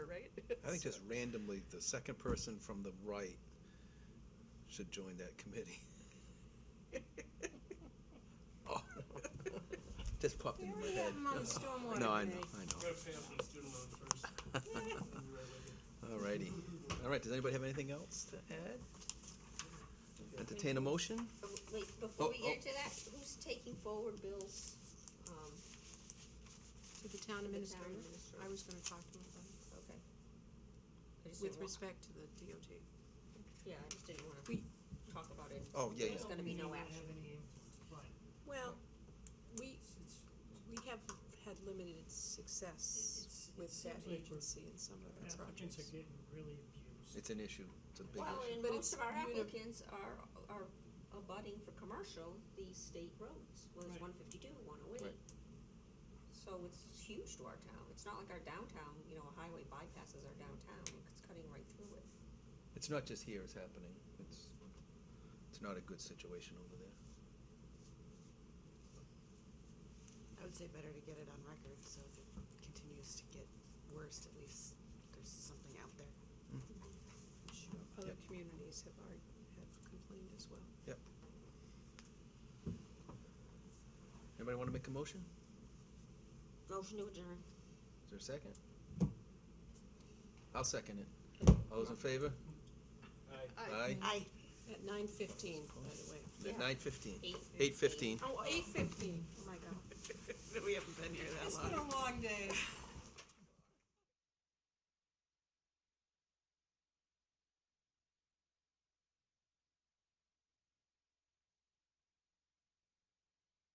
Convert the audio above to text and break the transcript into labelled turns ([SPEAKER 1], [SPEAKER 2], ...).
[SPEAKER 1] I think just randomly, the second person from the right should join that committee. Oh, Just popped
[SPEAKER 2] We
[SPEAKER 1] into my
[SPEAKER 2] already
[SPEAKER 1] head.
[SPEAKER 2] have them on the stormwater
[SPEAKER 1] No, I know,
[SPEAKER 2] committee.
[SPEAKER 1] I know.
[SPEAKER 3] Go pay off those student loans first. Then you're right with it.
[SPEAKER 1] Alrighty. Alright, does anybody have anything else to add? Entertain a motion?
[SPEAKER 2] Uh, Wait, before
[SPEAKER 1] Oh,
[SPEAKER 2] we
[SPEAKER 1] oh.
[SPEAKER 2] get into that, who's taking forward bills, um,
[SPEAKER 4] To the town
[SPEAKER 2] To the town
[SPEAKER 4] administrator, I
[SPEAKER 2] administrator.
[SPEAKER 4] was gonna talk to him about it,
[SPEAKER 2] okay? I just
[SPEAKER 4] with
[SPEAKER 2] didn't wa-
[SPEAKER 4] respect to the DOT.
[SPEAKER 2] Yeah, I just didn't wanna
[SPEAKER 4] We-
[SPEAKER 2] talk about it.
[SPEAKER 1] Oh, yeah, yeah.
[SPEAKER 2] There's gonna be no action.
[SPEAKER 4] Well, we, we have had limited success
[SPEAKER 3] It's- it
[SPEAKER 4] with that
[SPEAKER 3] seems like we're-
[SPEAKER 4] agency in some of the
[SPEAKER 3] Applicants are
[SPEAKER 4] projects.
[SPEAKER 3] getting really abused.
[SPEAKER 1] It's an issue. It's a big
[SPEAKER 2] Well,
[SPEAKER 1] issue.
[SPEAKER 2] and
[SPEAKER 4] But it's
[SPEAKER 2] most of our
[SPEAKER 4] uni-
[SPEAKER 2] applicants are, are abutting for commercial, these state roads, well, there's
[SPEAKER 3] Right.
[SPEAKER 2] one fifty-two, one oh eight.
[SPEAKER 1] Right.
[SPEAKER 2] So it's huge to our town, it's not like our downtown, you know, a highway bypasses our downtown, it's cutting right through it.
[SPEAKER 1] It's not just here, it's happening. It's, it's not a good situation over there.
[SPEAKER 5] I would say better to get it on record, so if it continues to get worse, at least there's something out there.
[SPEAKER 4] Sure, Other
[SPEAKER 1] Yep.
[SPEAKER 4] communities have, already have complained as well.
[SPEAKER 1] Anybody wanna make a motion?
[SPEAKER 2] Motion to adjourn.
[SPEAKER 1] Is there a second? I'll second it. All those in favor?
[SPEAKER 3] I-
[SPEAKER 1] Aye.
[SPEAKER 5] I,
[SPEAKER 4] At nine fifteen, by the way.
[SPEAKER 2] Yeah.
[SPEAKER 1] Nine fifteen.
[SPEAKER 2] Eight.
[SPEAKER 1] Eight fifteen.
[SPEAKER 4] Oh, eight fifteen, oh my god.
[SPEAKER 5] we haven't been here that long.
[SPEAKER 4] long day.